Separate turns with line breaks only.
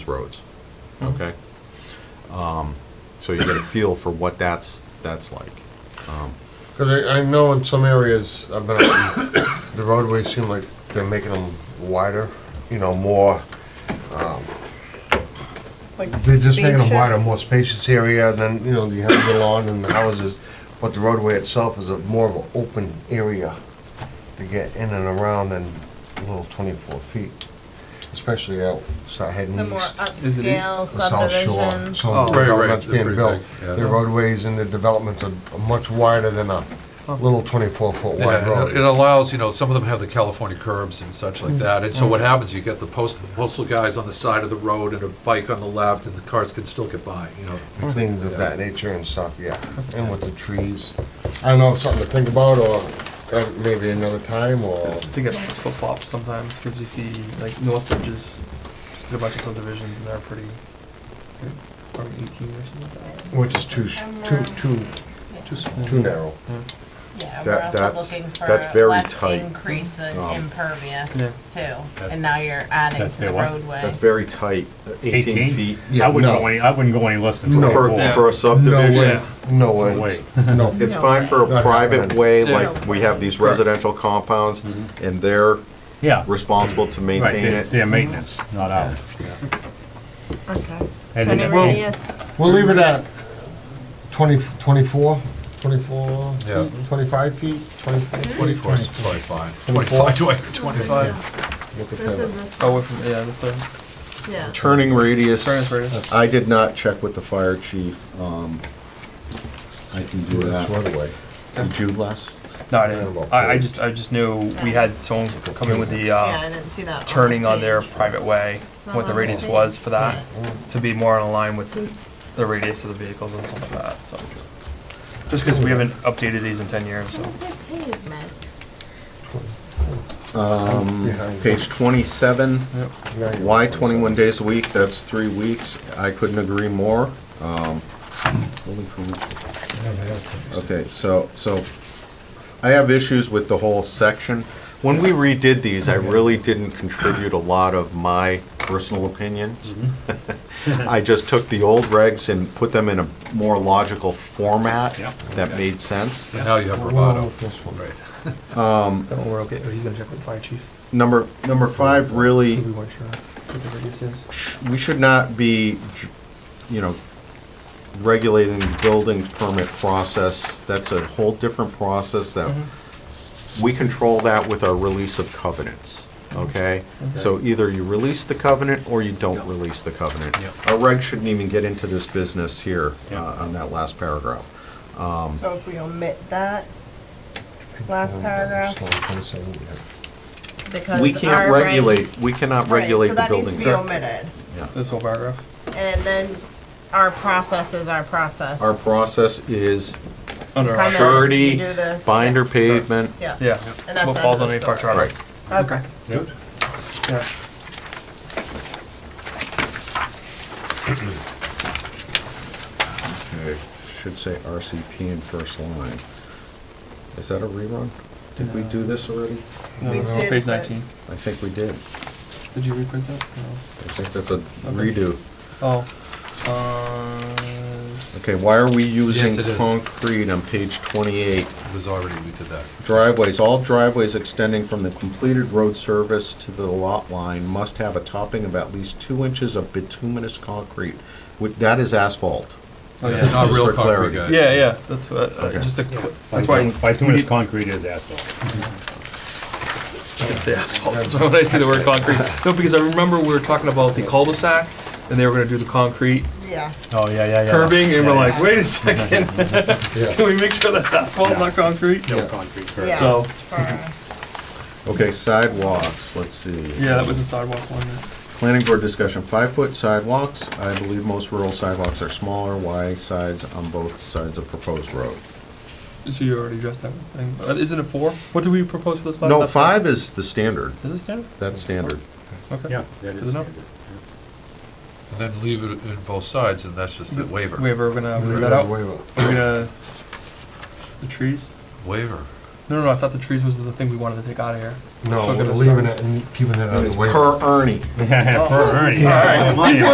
roads, okay? Um, So you get a feel for what that's, that's like. Um,
Because I, I know in some areas, I've been, out- the roadways seem like they're making them wider, you know, more, they're just making them wider, more spacious area, and then, you know, you have the lawn and the houses, but the roadway itself is a more of an open area to get in and around than a little twenty-four feet, especially out, start heading
The more
east.
Is it east?
upscale
the South Shore.
subdivisions.
So
Oh.
the
Right, right,
developments
they're
being
pretty
built,
big, yeah.
the roadways and the developments are much wider than a little twenty-four foot wide
Oh. Yeah,
road.
and uh, it- it allows, you know, some of them have the California curbs and such
Mm-hmm.
like that, and so what happens, you get the post postal guys on the side of the road and a bike on the left, and the cars can still get by, you know.
and things of that nature and stuff, yeah, and with the trees. I don't know, something to think about, or uh, maybe another time, or,
I think it almost flip flops sometimes because you see like Northbridge is just did a bunch of subdivisions and they're pretty. Are we 18 or something? like that?
which is too, sh-
uh,
too, too, too, s- too narrow.
Yeah,
That-
we're also
that's-
looking
that's
for
very
less
tight.
increase in
Um,
impervious too, and now you're adding
That's
to the
the one.
roadway.
That's very tight, 18
18?
feet.
Yeah,
I wouldn't
no.
go any, I wouldn't go any less than
No.
four.
For,
four.
for a
No way,
subdivision,
no
It's a
way,
way.
no.
it's fine for
No
a
way.
private way,
Yeah.
like we have these residential compounds,
Mm-hmm.
and they're
Yeah, right,
responsible to maintain
it's
it.
their maintenance, not ours.
Okay.
And
Turning
then-
Well-
radius,
We'll leave it at 20 24, 24,
Yeah.
Mm-hmm.
feet, 25 feet, 24.
Twenty-four is probably fine.
Twenty-four?
Twenty-five, twenty- twenty-five.
Look at
this is
that.
this,
Oh, we're from yeah, that's a
yeah.
Turning radius.
Turner's radius.
I did not check with the fire chief. um, I can do
That's
that.
one way.
Did you, Les?
No, I didn't. I, I just I just knew we had someone come in with the
Yeah, I
uh,
didn't see that. this
turning on their
page.
private way,
not
what the
on this
radius
page.
was for that, to be more in line with the radius of the vehicles and stuff like that. So. Just because we haven't updated these in 10 years, so.
What is it pavement?
Behind.
Page 27.
Yeah, yeah.
Why 21 days a week? That's three weeks. I couldn't agree more. Um, building permit. Okay, so, so I have issues with the whole section. When we redid these, I really didn't contribute a lot of my personal opinions. I just took the old regs and put them in a more logical format
Yep.
that made sense.
Now you have
Well,
Roboto.
this one.
That one we're okay. Oh, he's gonna check with the fire chief.
Number, number five
I
really
think we weren't sure what the radius is.
we should not be, you know, regulating the building permit process. That's a whole different process that, we control that with our release of covenants, okay? So either you release the covenant or you don't release the covenant. Our reg shouldn't even get into this business here
Yeah.
uh, on that last paragraph. Um,
So if we omit that last
So,
paragraph,
27, yeah.
because
We can't
our
regulate,
regs-
we cannot
Right,
regulate the
So that needs
building.
to be omitted,
This whole paragraph.
and then our process is our process.
Our process is
Under
Primary,
our-
surety,
you do this,
binder pavement.
Yeah.
Yeah.
And that's
What
the
falls
end of the
underneath our
story.
charter.
Right.
Okay.
Yeah.
Okay, should say RCP in first line. Is that a rerun? Did we do this already?
No,
We
no, no,
did
page
that.
19.
I think we did.
Did you reprint that? No.
I think that's a redo.
Oh. Uh,
Okay, why are we
Yes,
using
it is.
concrete on page 28?
It was already, we did that.
Driveways, all driveways extending from the completed road service to the lot line must have a topping of at least two inches of bituminous concrete. With- That is asphalt.
oh
It's
yeah.
not
Just for
real concrete,
clarity.
guys.
Yeah, yeah. That's what. Uh,
Okay.
Just a. Qu-
By
that's why.
doing- By doing
you
this concrete is asphalt.
didn't say asphalt. That's why when I see the word concrete. No, because I remember we were talking about the cul-de-sac, and they were going to do the concrete
Yes.
yeah, yeah,
curbing, and we're like, wait a second, can we make sure that's asphalt, not concrete?
No concrete curb.
Yes,
So-
for-
Okay, sidewalks, let's see.
Yeah, that was a sidewalk one.
Planning board discussion, five-foot sidewalks. I believe most rural sidewalks are smaller, wide sides on both sides of proposed road.
So you already addressed that thing. Uh, Isn't it four? What did we propose for this last?
No,
episode?
five is the standard.
Is it standard?
That's standard.
Okay.
Yeah, that
Good
is.
enough.
And then leave it in both sides, and that's just a waiver.
Mm-hmm. Waiver, we're gonna
Leave
leave
it
uh, that out. We're
way up.
gonna the trees.
Waiver.
No, no, no. I thought the trees was the thing we wanted to take out of here.
No,
Took it
we're
as
leaving
some-
it and keeping it out of the Uh, way.
Per Ernie.
Per Ernie.
All right.
Money.